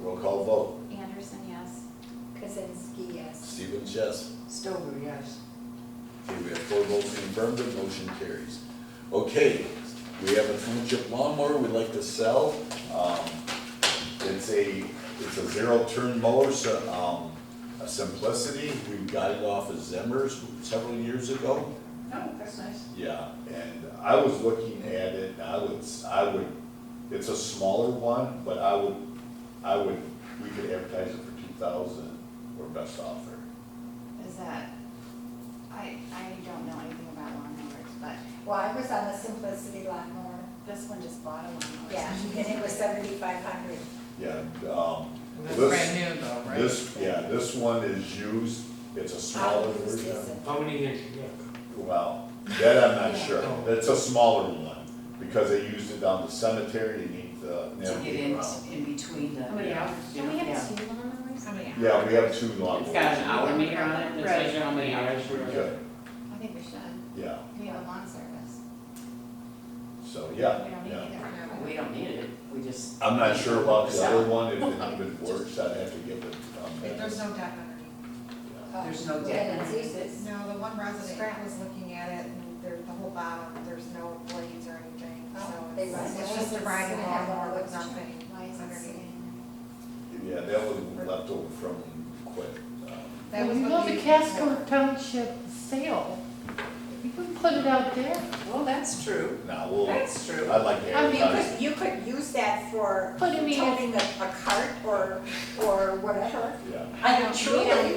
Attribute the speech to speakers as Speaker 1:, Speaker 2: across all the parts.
Speaker 1: Roll call vote.
Speaker 2: Anderson, yes.
Speaker 3: Kazinsky, yes.
Speaker 1: Stevens, yes.
Speaker 4: Stover, yes.
Speaker 1: Okay, we have four votes in the affirmative, motion carries. Okay, we have a township lawnmower we'd like to sell. Um, It's a, it's a zero-turn mower, so, um, a Simplicity. We got it off of Zimmer's several years ago.
Speaker 4: Oh, that's nice.
Speaker 1: Yeah, and I was looking at it, and I would, I would, it's a smaller one, but I would, I would, we could advertise it for two thousand or best offer.
Speaker 2: Is that, I, I don't know anything about lawnmowers, but
Speaker 3: Well, I was on the Simplicity lawnmower,
Speaker 2: this one just bought a lawnmower.
Speaker 3: yeah, and it was seventy-five hundred.
Speaker 1: Yeah, um,
Speaker 4: That's
Speaker 1: this,
Speaker 4: brand new though, right?
Speaker 1: this, yeah, this one is used, it's a smaller version.
Speaker 5: How many years you got?
Speaker 1: Well, that I'm not sure, it's a smaller one, because they used it down the cemetery, you need to
Speaker 4: To get
Speaker 1: navigate
Speaker 4: in,
Speaker 1: around.
Speaker 4: in between
Speaker 2: How
Speaker 4: the,
Speaker 2: many
Speaker 1: Yeah.
Speaker 2: hours? Don't we
Speaker 4: Yeah.
Speaker 2: have two lawnmowers?
Speaker 1: Yeah, we have two lawnmowers.
Speaker 6: It's got an hour meter on it, that tells you how many hours
Speaker 1: We
Speaker 6: you're.
Speaker 1: could,
Speaker 2: I think we should.
Speaker 1: Yeah,
Speaker 2: We have a lawn service.
Speaker 1: so,
Speaker 2: We
Speaker 1: yeah,
Speaker 2: don't need
Speaker 1: yeah.
Speaker 2: either.
Speaker 6: We don't need it, we just.
Speaker 1: I'm not sure about the other one, if it even works, I'd have to give it. um,
Speaker 7: If There's no deck underneath.
Speaker 4: There's
Speaker 6: Oh,
Speaker 4: no
Speaker 3: Yeah,
Speaker 4: deck.
Speaker 3: it's used it.
Speaker 7: No, the one resident was looking at it, and there's the whole bottom, there's no blades or anything,
Speaker 2: Oh,
Speaker 7: so
Speaker 3: They
Speaker 7: it's,
Speaker 3: must-
Speaker 7: it's just a riding lawnmower with nothing
Speaker 2: Why is it
Speaker 7: underneath.
Speaker 2: sitting?
Speaker 1: Yeah, that was left over from quit. um,
Speaker 7: That was
Speaker 8: When we
Speaker 7: what
Speaker 8: go to
Speaker 7: we-
Speaker 8: Casco Township sale, we can put it out there,
Speaker 6: Well, that's true,
Speaker 1: Now, we'll, I'd
Speaker 6: that's true.
Speaker 1: like to
Speaker 3: I mean, you
Speaker 1: advertise,
Speaker 3: could, you could use that for
Speaker 8: But I mean-
Speaker 3: toting a, a cart or, or whatever.
Speaker 1: yeah.
Speaker 3: I don't truly.
Speaker 8: okay,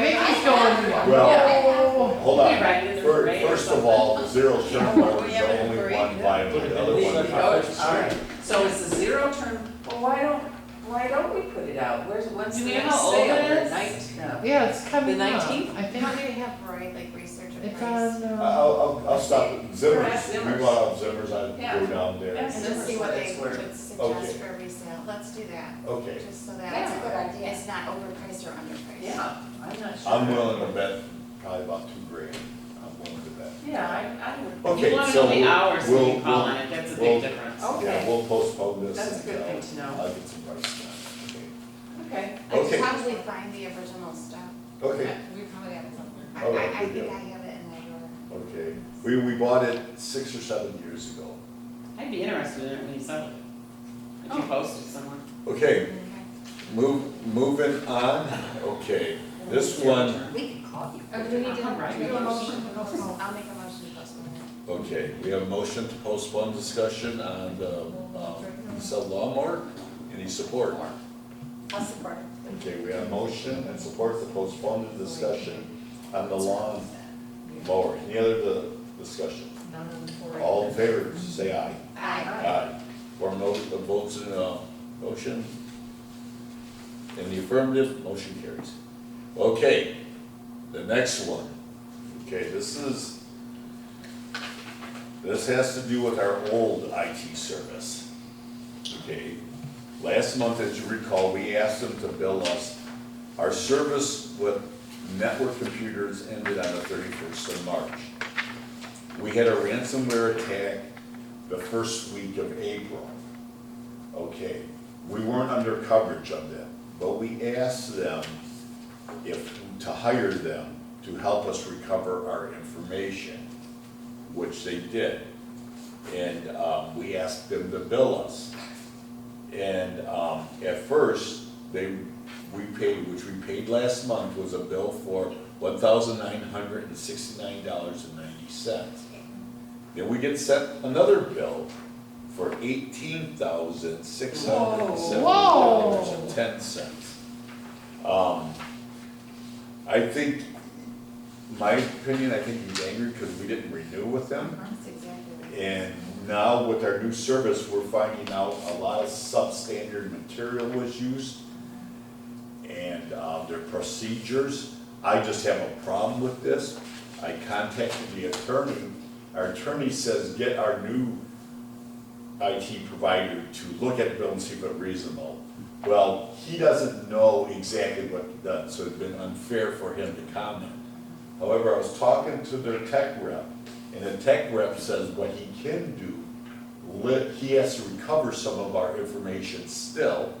Speaker 8: Mickey's going.
Speaker 1: Well, hold on,
Speaker 6: Be right in the
Speaker 1: Fir-
Speaker 6: parade or
Speaker 1: first of
Speaker 6: something.
Speaker 1: all, zero turn law is
Speaker 7: Yeah,
Speaker 1: the
Speaker 7: we're
Speaker 1: only
Speaker 7: agreeing,
Speaker 1: one
Speaker 7: yeah.
Speaker 1: viable, the other
Speaker 5: Yeah.
Speaker 1: one.
Speaker 6: Oh, all right, so it's a zero turn, well, why don't, why don't we put it out, where's, when's
Speaker 8: Do
Speaker 6: the
Speaker 8: we know
Speaker 6: next
Speaker 8: how old
Speaker 6: sale,
Speaker 8: it
Speaker 6: The
Speaker 8: is?
Speaker 6: night- no.
Speaker 8: Yeah, it's coming
Speaker 6: The
Speaker 8: up,
Speaker 6: 19th?
Speaker 8: I
Speaker 2: Don't
Speaker 8: think,
Speaker 2: we have Roy like research a
Speaker 8: it's
Speaker 2: price?
Speaker 8: on,
Speaker 1: I'll,
Speaker 8: uh,
Speaker 1: I'll, I'll stop, it.
Speaker 6: at
Speaker 1: Zimmers, we
Speaker 6: Zimmers.
Speaker 1: bought out Zimmers, I'd
Speaker 6: Yeah.
Speaker 1: go down there.
Speaker 6: Yeah.
Speaker 2: And just see what they
Speaker 6: That's where-
Speaker 2: would
Speaker 1: Okay.
Speaker 2: suggest for resale. Let's do that,
Speaker 1: Okay,
Speaker 2: just so
Speaker 3: That's a
Speaker 2: that
Speaker 3: good idea.
Speaker 2: it's not overpriced or underpriced.
Speaker 6: Yeah, I'm not sure.
Speaker 1: I'm willing to bet probably about two grand, I'm willing to bet.
Speaker 6: Yeah, I, I would,
Speaker 1: Okay,
Speaker 6: you wanna
Speaker 1: so
Speaker 6: know the
Speaker 1: we'll-
Speaker 6: hours when
Speaker 1: we'll-
Speaker 6: you call
Speaker 1: we'll-
Speaker 6: on it, that's a
Speaker 1: we'll-
Speaker 6: big difference.
Speaker 1: Yeah,
Speaker 6: Okay,
Speaker 1: we'll postpone this.
Speaker 6: That's a good
Speaker 1: until
Speaker 6: thing to know.
Speaker 1: I'll get some prices on it, okay?
Speaker 6: okay.
Speaker 2: I could
Speaker 1: Okay.
Speaker 2: probably find the original stuff.
Speaker 1: Okay,
Speaker 7: We probably have it somewhere.
Speaker 2: I,
Speaker 1: All right,
Speaker 2: I I
Speaker 1: we do.
Speaker 2: think I have it in my drawer.
Speaker 1: okay. We, we bought it six or seven years ago.
Speaker 6: I'd be interested in it when you sell it. If you post it somewhere.
Speaker 1: Okay, move, moving on, okay. This one,
Speaker 3: We could call you.
Speaker 2: Oh, do we need to, do
Speaker 6: Alright.
Speaker 2: we have a motion to postpone? I'll make a motion to postpone it.
Speaker 1: okay, we have a motion to postpone discussion on the, um, sell lawnmower. Any support?
Speaker 3: I'll support it.
Speaker 1: Okay, we have a motion and support to postpone the discussion on the lawn mower. Any other the discussion?
Speaker 7: None of the four.
Speaker 2: Oh.
Speaker 1: All in favor, say aye.
Speaker 3: Aye.
Speaker 1: Aye. Four no, Uh, the votes in the motion. In the affirmative, motion carries. Okay, the next one. Okay, this is, this has to do with our old IT service. Okay, last month, as you recall, we asked them to bill us. Our service with network computers ended on the thirty-first of March. We had a ransomware attack the first week of April. Okay, we weren't under coverage of them, but we asked them if, to hire them to help us recover our information, which they did. And, um, we asked them to bill us. And, um, at first, they, we paid, which we paid last month, was a bill for one thousand nine hundred and sixty-nine dollars and ninety cents. Then we get sent another bill for eighteen thousand six hundred and seventy dollars and ten cents. Um, I think, my opinion, I think he's angry because we didn't renew with them.
Speaker 2: That's exactly what it is.
Speaker 1: And now with our new service, we're finding out a lot of substandard material was used and uh, their procedures. I just have a problem with this. I contacted the attorney. Our attorney says get our new IT provider to look at the bill and see if it's reasonable. Well, he doesn't know exactly what it does, so it's been unfair for him to comment. However, I was talking to their tech rep, and the tech rep says what he can do, lit, he has to recover some of our information still,